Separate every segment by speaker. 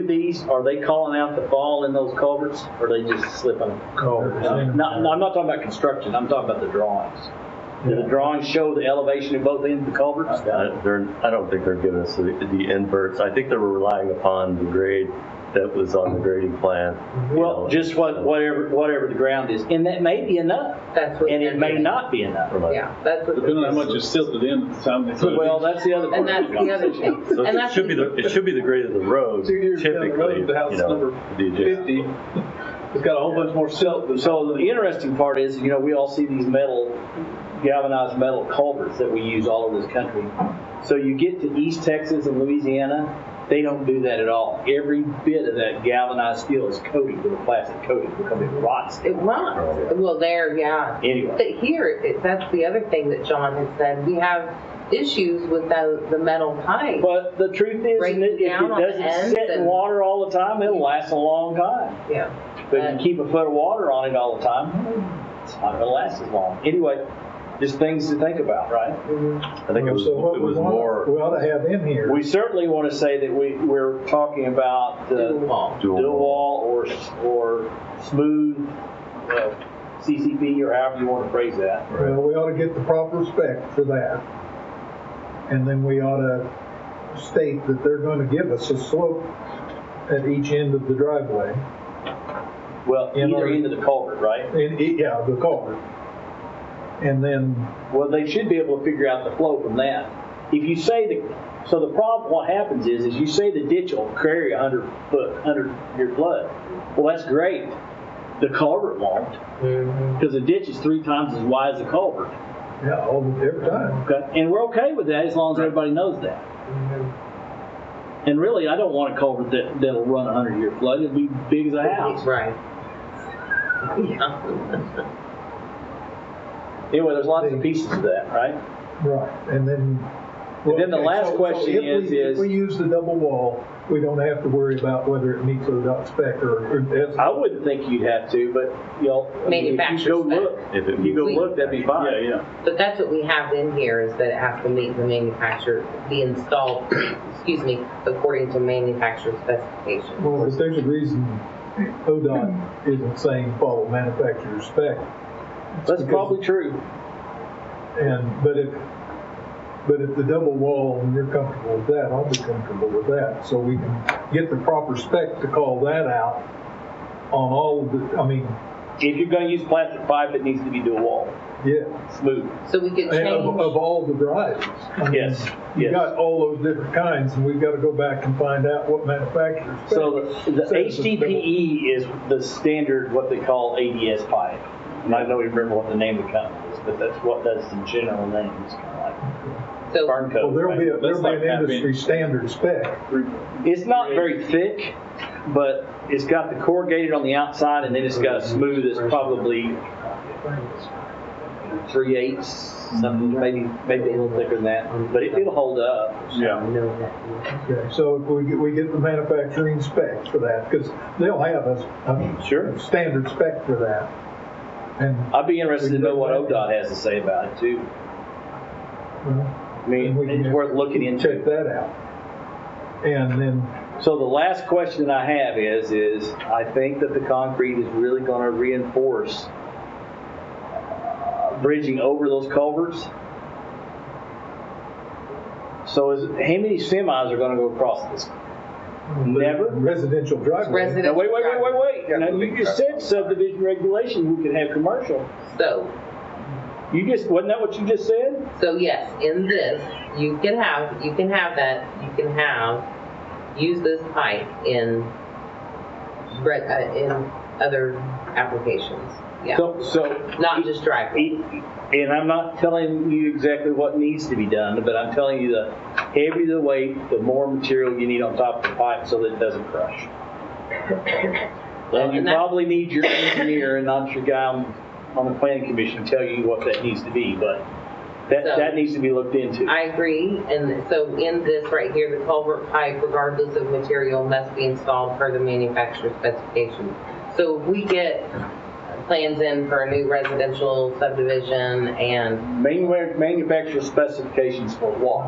Speaker 1: these, are they calling out the fall in those culverts, or are they just slipping them?
Speaker 2: Culverts.
Speaker 1: No, no, I'm not talking about construction, I'm talking about the drawings. Do the drawings show the elevation of both ends of the culverts?
Speaker 3: Uh, They're, I don't think they're giving us the the inverts. I think they were relying upon the grade that was on the grading plan. you
Speaker 1: Well,
Speaker 3: know,
Speaker 1: just what, whatever, whatever the ground is, and that may be enough,
Speaker 4: That's what.
Speaker 1: and it may not be enough.
Speaker 3: from a-
Speaker 4: Yeah, that's what.
Speaker 5: Depending on how much is silted in at the time they put it. in.
Speaker 1: Well, that's the other part.
Speaker 4: And that's the other thing.
Speaker 3: So
Speaker 4: And
Speaker 3: it
Speaker 4: that's-
Speaker 3: should be, the it should be the grade of the road
Speaker 5: Two years down the
Speaker 3: typically,
Speaker 5: road,
Speaker 3: you
Speaker 5: the house number
Speaker 3: know. the adjacent-
Speaker 5: Fifty, it's got a whole bunch more silt than.
Speaker 1: So the interesting part is, you know, we all see these metal, galvanized metal culverts that we use all over this country. So you get to East Texas and Louisiana, they don't do that at all. Every bit of that galvanized steel is coated with a plastic coating because it rots.
Speaker 4: It runs. Well, there, yeah.
Speaker 1: Anyway.
Speaker 4: But here, it- that's the other thing that John has said. We have issues with the, the metal pipe.
Speaker 1: But the truth is,
Speaker 4: Breaks
Speaker 1: and it- if
Speaker 4: down on
Speaker 1: it
Speaker 4: the
Speaker 1: doesn't
Speaker 4: ends
Speaker 1: sit in
Speaker 4: and-
Speaker 1: water all the time, it'll last a long time.
Speaker 4: Yeah.
Speaker 1: But you keep a foot of water on it all the time, it's not gonna last as long. Anyway, just things to think about, right?
Speaker 4: Mhm.
Speaker 3: I think it was, it
Speaker 2: So what we
Speaker 3: was
Speaker 2: want- We
Speaker 3: more
Speaker 2: ought to have in here.
Speaker 1: We certainly want to say that we, we're talking about
Speaker 4: Dual
Speaker 1: the
Speaker 4: wall.
Speaker 3: Dual
Speaker 1: dual wall or, or smooth uh, CCP or however you want to phrase that.
Speaker 2: Well, we ought to get the proper respect for that. And then we ought to state that they're going to give us a slope at each end of the driveway.
Speaker 1: Well,
Speaker 2: In
Speaker 1: either
Speaker 2: order-
Speaker 1: end of the culvert, right?
Speaker 2: And, it- e, yeah, the culvert. And then
Speaker 1: Well, they should be able to figure out the flow from that. If you say the, so the problem, what happens is, is you say the ditch will carry a hundred foot, hundred year flood. Well, that's great. The culvert won't, because the ditch is three times as wide as the culvert.
Speaker 2: Yeah, all the, every time.
Speaker 1: Okay, and we're okay with that as long as everybody knows that. Mm-hmm. And really, I don't want a culvert that, that'll run a hundred year flood, it'll be big as a house.
Speaker 4: Right. Yeah.
Speaker 1: Anyway, there's lots of pieces to that, right?
Speaker 2: Right, and then.
Speaker 1: And then the
Speaker 2: Okay,
Speaker 1: last
Speaker 2: so- so
Speaker 1: question
Speaker 2: if we-
Speaker 1: is- is-
Speaker 2: If we use the double wall, we don't have to worry about whether it meets ODOT spec or. or that's-
Speaker 1: I wouldn't think you'd have to, but, you know. I mean, if you go
Speaker 4: Manufacturer's spec.
Speaker 1: look,
Speaker 3: If it
Speaker 1: If you go
Speaker 4: meets-
Speaker 1: look, that'd be fine.
Speaker 5: Yeah, yeah.
Speaker 4: But that's what we have in here, is that it has to meet the manufacturer, be installed, excuse me, according to manufacturer specifications.
Speaker 2: Well, if there's a reason ODOT isn't saying follow manufacturer's spec.
Speaker 1: That's probably true.
Speaker 2: And, but if, but if the double wall, and you're comfortable with that, I'll be comfortable with that. So we can get the proper spec to call that out on all of the, I mean,
Speaker 1: If you're gonna use plastic pipe, it needs to be dual wall,
Speaker 2: yeah.
Speaker 1: smooth.
Speaker 4: So we could
Speaker 2: And Of, of
Speaker 4: change,
Speaker 2: all the varieties. I mean,
Speaker 1: Yes,
Speaker 2: You
Speaker 1: yes.
Speaker 2: got all those different kinds, and we've got to go back and find out what manufacturers.
Speaker 1: So the, the HDPE E is the standard, what they call ADS pipe. And I don't even remember what the name of the company is, but that's what, that's the general name, it's kind of like
Speaker 4: so,
Speaker 1: burn coat.
Speaker 2: Well, there'll be, a-
Speaker 1: right?
Speaker 2: there'll
Speaker 5: like
Speaker 2: be an
Speaker 5: having-
Speaker 2: industry standard spec.
Speaker 5: Three-
Speaker 1: It's not very thick, but it's got the corrugated on the outside and then it's got a smooth that's probably three eighths, something, maybe, maybe a little thicker than that, but it, it'll hold up.
Speaker 5: Yeah.
Speaker 4: know that.
Speaker 2: Okay, so if we get, we get the manufacturing spec for that, because they'll have a, a
Speaker 1: Sure.
Speaker 2: standard spec for that. And,
Speaker 1: I'd be interested to know what ODOT has to say about it too.
Speaker 2: well,
Speaker 1: I mean,
Speaker 2: we can
Speaker 1: it's worth looking into.
Speaker 2: check that out. And then,
Speaker 1: So the last question I have is, is I think that the concrete is really going to reinforce uh, bridging over those culverts. So is, how many semis are going to go across this? Never?
Speaker 2: residential driveway.
Speaker 4: Resident-
Speaker 1: Now, wait, wait, wait, wait, wait. Now, you just said subdivision regulation, we can have commercial.
Speaker 4: So,
Speaker 1: You just, wasn't that what you just said?
Speaker 4: so yes, in this, you can have, you can have that, you can have, use this pipe in, re- uh, in other applications. Yeah,
Speaker 1: So, e-, so.
Speaker 4: not just driveway.
Speaker 1: And I'm not telling you exactly what needs to be done, but I'm telling you the heavier the weight, the more material you need on top of the pipe so that it doesn't crush. And you
Speaker 4: And that-
Speaker 1: probably need your engineer and not your guy on, on the planning commission to tell you what that needs to be, but that,
Speaker 4: So-
Speaker 1: that needs to be looked into.
Speaker 4: I agree, and so in this right here, the culvert pipe, regardless of material, must be installed per the manufacturer's specifications. So if we get plans in for a new residential subdivision and
Speaker 1: Manu- Manufacturer specifications for what?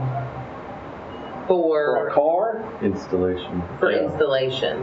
Speaker 1: For a
Speaker 4: for,
Speaker 1: car?
Speaker 3: installation.
Speaker 4: for
Speaker 3: Yeah.
Speaker 4: installation.